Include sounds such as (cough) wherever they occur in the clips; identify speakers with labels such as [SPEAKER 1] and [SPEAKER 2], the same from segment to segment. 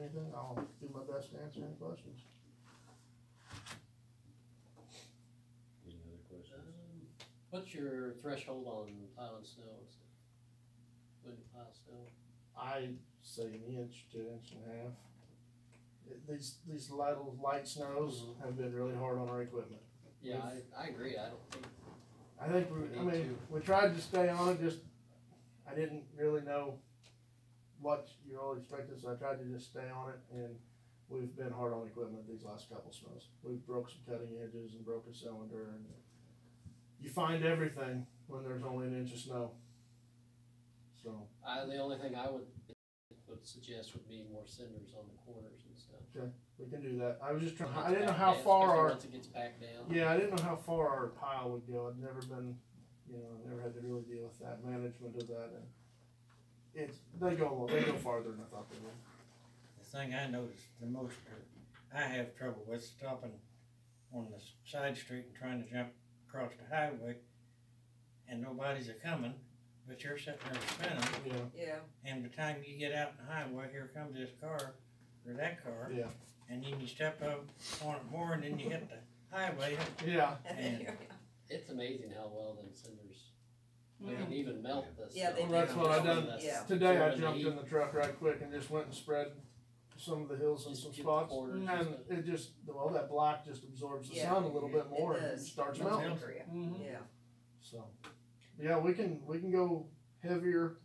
[SPEAKER 1] anything, I'll do my best to answer any questions.
[SPEAKER 2] Any other questions?
[SPEAKER 3] Um, What's your threshold on plowing snow and stuff? When you plow snow?
[SPEAKER 1] I say an inch to inch and a half. It- These, these little light snows have been really hard on our equipment.
[SPEAKER 3] Yeah, I, I agree, I don't think,
[SPEAKER 1] I think we, I mean, we tried to stay on it, just, I didn't really know what you all expected, so I tried to just stay on it, and we've been hard on equipment these last couple snows. We've broke some cutting edges and broke a cylinder, and you find everything when there's only an inch of snow. So,
[SPEAKER 3] I, the only thing I would, would suggest would be more cinders on the corners and stuff.
[SPEAKER 1] we can do that. I was just trying,
[SPEAKER 3] Once
[SPEAKER 1] I didn't know
[SPEAKER 3] back
[SPEAKER 1] how
[SPEAKER 3] down,
[SPEAKER 1] far
[SPEAKER 3] especially
[SPEAKER 1] our
[SPEAKER 3] Once it gets back down.
[SPEAKER 1] Yeah, I didn't know how far our pile would go. I'd never been, you know, I've never had to really deal with that management of that. And it's they go a little- they go farther than I thought they would.
[SPEAKER 4] The thing I noticed the most, uh, I have trouble with stopping on the s- side street and trying to jump across the highway, and nobody's a coming, but you're sitting there spinning,
[SPEAKER 1] Yeah,
[SPEAKER 5] Yeah,
[SPEAKER 4] and by the time you get out in the highway, here comes this car or that car,
[SPEAKER 1] yeah,
[SPEAKER 4] and then you step up on it more, and then you hit the highway,
[SPEAKER 1] yeah, (laughs)
[SPEAKER 4] And-
[SPEAKER 3] It's amazing how well them cinders, they
[SPEAKER 5] Mhm.
[SPEAKER 3] can even melt the.
[SPEAKER 5] Yeah, they
[SPEAKER 3] snow.
[SPEAKER 5] Well, that's do. what I
[SPEAKER 1] done.
[SPEAKER 3] That's
[SPEAKER 5] Yeah.
[SPEAKER 1] Today I
[SPEAKER 3] throwing the
[SPEAKER 1] jumped
[SPEAKER 3] heat,
[SPEAKER 1] in the truck right quick and just went and spread some of the hills in
[SPEAKER 3] just
[SPEAKER 1] some
[SPEAKER 3] get the
[SPEAKER 1] spots. Mm-hmm.
[SPEAKER 3] corners and
[SPEAKER 1] And
[SPEAKER 3] stuff.
[SPEAKER 1] it just well that black just absorbs the
[SPEAKER 5] Yeah.
[SPEAKER 1] sun a little bit more and
[SPEAKER 5] does.
[SPEAKER 1] starts
[SPEAKER 4] Melts
[SPEAKER 1] melting.
[SPEAKER 4] down.
[SPEAKER 5] Korea.
[SPEAKER 1] Mhm.
[SPEAKER 5] yeah.
[SPEAKER 1] So yeah, we can we can go heavier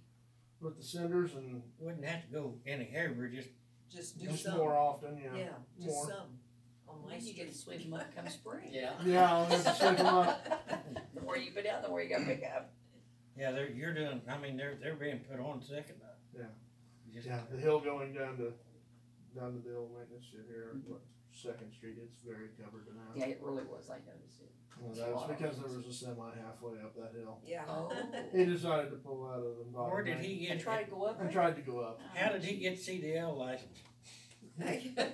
[SPEAKER 1] with the cinders and
[SPEAKER 4] wouldn't have to go any heavier, just
[SPEAKER 5] Just do
[SPEAKER 1] just
[SPEAKER 5] some.
[SPEAKER 1] more often.
[SPEAKER 5] Yeah,
[SPEAKER 1] more.
[SPEAKER 5] just some. On my
[SPEAKER 6] When you get
[SPEAKER 5] street.
[SPEAKER 6] to sweep them up come
[SPEAKER 5] (laughs)
[SPEAKER 6] spring.
[SPEAKER 3] Yeah,
[SPEAKER 1] Yeah, I'll have to shake 'em up.
[SPEAKER 6] The more you put out, the more you gotta pick up.
[SPEAKER 4] yeah, they're you're doing. I mean, they're they're being put on second. uh,
[SPEAKER 1] Yeah.
[SPEAKER 4] Just,
[SPEAKER 1] Yeah, the hill going down to, down to the old maintenance shit here, what, Second Street, it's very covered now.
[SPEAKER 6] Yeah, it really was, I noticed it.
[SPEAKER 1] Well, that was because there was a semi halfway up that hill.
[SPEAKER 5] Yeah.
[SPEAKER 6] Oh.
[SPEAKER 5] (laughs)
[SPEAKER 1] He decided to pull out of the bottom.
[SPEAKER 4] Where did
[SPEAKER 1] bank
[SPEAKER 4] he
[SPEAKER 6] You
[SPEAKER 4] get?
[SPEAKER 6] try to go up
[SPEAKER 1] And
[SPEAKER 6] it?
[SPEAKER 1] tried to go up.
[SPEAKER 4] How did he get CDL license? Huh?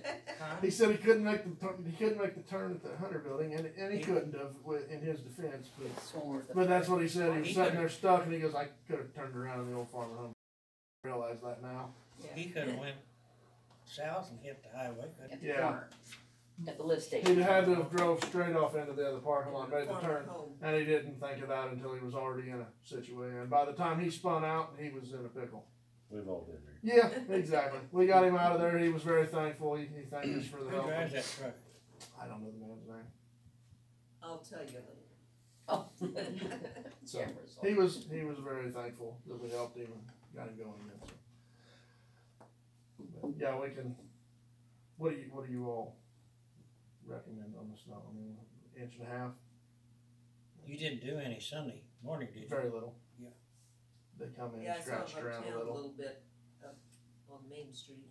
[SPEAKER 1] He said he couldn't make the, tur- he couldn't make the turn at the Hunter Building, and, and he couldn't have, wi- in his defense, but,
[SPEAKER 6] Sworn with the-
[SPEAKER 1] but that's what he said, he
[SPEAKER 4] He
[SPEAKER 1] was sitting
[SPEAKER 4] could've-
[SPEAKER 1] there stuck, and he goes, I could've turned around in the old farm at home. Realize that now.
[SPEAKER 6] Yeah.
[SPEAKER 4] He could have went south and hit the highway, couldn't
[SPEAKER 6] At the
[SPEAKER 1] Yeah.
[SPEAKER 6] corner. At the lift station.
[SPEAKER 1] He'd had to have drove straight off into the other parking lot, made the
[SPEAKER 5] Farm
[SPEAKER 1] turn,
[SPEAKER 5] home.
[SPEAKER 1] And he didn't think of that until he was already in a situation. And by the time he spun out, he was in a pickle.
[SPEAKER 2] We've all been there.
[SPEAKER 1] Yeah, exactly. We got him out of there. He was very thankful. He, he thanked us for
[SPEAKER 4] he?
[SPEAKER 1] the
[SPEAKER 4] Who
[SPEAKER 1] help.
[SPEAKER 4] drives that truck?
[SPEAKER 1] I don't know the man's name.
[SPEAKER 5] I'll tell you
[SPEAKER 1] (laughs)
[SPEAKER 6] Oh. (laughs)
[SPEAKER 5] later.
[SPEAKER 1] So
[SPEAKER 6] Cameras on.
[SPEAKER 1] he was he was very thankful that we helped him and got him going again. So. But yeah, we can. What do you What do you all recommend on the snow? I mean, inch and a half,
[SPEAKER 4] You didn't do any Sunday morning, did you?
[SPEAKER 1] very little.
[SPEAKER 4] Yeah.
[SPEAKER 1] They come in
[SPEAKER 5] Yeah, I
[SPEAKER 1] and
[SPEAKER 5] saw
[SPEAKER 1] scratched
[SPEAKER 5] him
[SPEAKER 1] around
[SPEAKER 5] uptown
[SPEAKER 1] a
[SPEAKER 5] a
[SPEAKER 1] little.
[SPEAKER 5] little bit up on Main Street.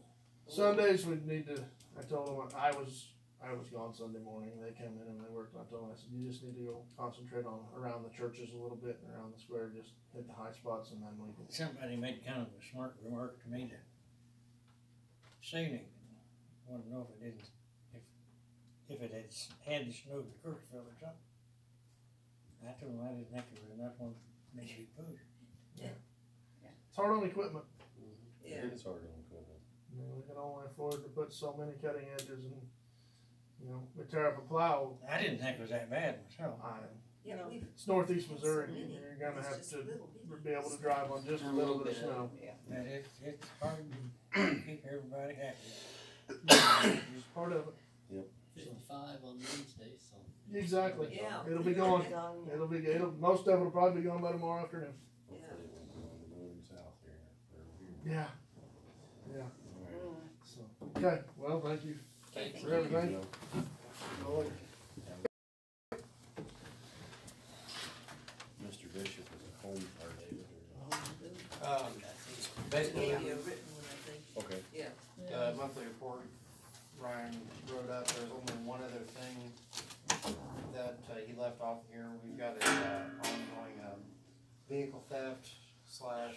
[SPEAKER 1] Sundays we need to. I told them I was I was gone Sunday morning. They came in and they worked. I told them I said you just need to go concentrate on around the churches a little bit and around the square. Just hit the high spots and then we can.
[SPEAKER 4] Somebody made kind of a smart remark to me that Sunday, I want to know if it didn't, if, if it had, s- had the snow to Kirksville or something. I told him I didn't think there was enough on Mississippi Bush.
[SPEAKER 1] It's hard on equipment.
[SPEAKER 5] Yeah.
[SPEAKER 2] It is hard on equipment.
[SPEAKER 1] You know, we can only afford to put so many cutting edges and you know we tear up a plow.
[SPEAKER 4] I didn't think it was that bad myself.
[SPEAKER 1] I,
[SPEAKER 5] Yeah,
[SPEAKER 6] No.
[SPEAKER 5] we've,
[SPEAKER 1] it's northeast Missouri.
[SPEAKER 5] So many.
[SPEAKER 1] You're gonna
[SPEAKER 5] it's
[SPEAKER 1] have
[SPEAKER 5] just a
[SPEAKER 1] to
[SPEAKER 5] little bitty.
[SPEAKER 1] be able to drive on just a little bit of snow.
[SPEAKER 6] Yeah.
[SPEAKER 4] But it's, it's hard to keep everybody happy.
[SPEAKER 1] It's part of it.
[SPEAKER 3] fifty-five on Wednesday, so.
[SPEAKER 1] Exactly.
[SPEAKER 5] Yeah.
[SPEAKER 1] It'll be going. It'll be. It'll most of it'll probably be gone by tomorrow afternoon.
[SPEAKER 2] Hopefully it won't go on the northern south here. or here.
[SPEAKER 1] Yeah.
[SPEAKER 2] All right.
[SPEAKER 6] Mm.
[SPEAKER 1] So, okay, well, thank you
[SPEAKER 6] Thank
[SPEAKER 1] for everything.
[SPEAKER 2] Joe.
[SPEAKER 1] Lloyd.
[SPEAKER 2] Mr. Bishop is at home, or David, or?
[SPEAKER 7] Um,
[SPEAKER 5] Gave
[SPEAKER 7] basically,
[SPEAKER 5] you a written one, I think.
[SPEAKER 2] Okay.
[SPEAKER 5] Yeah.
[SPEAKER 1] Uh,
[SPEAKER 7] the uh, monthly report Ryan wrote up, there's only one other thing that uh, he left off here. We've got a, uh, ongoing, um, vehicle theft slash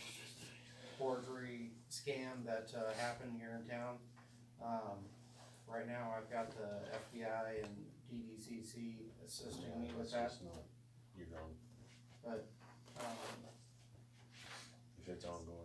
[SPEAKER 7] forgery scam that, uh, happened here in town. Um, right now, I've got the FBI and DDCC assisting me with that.
[SPEAKER 2] It's not- You're on,
[SPEAKER 7] Um,
[SPEAKER 2] if it's ongoing,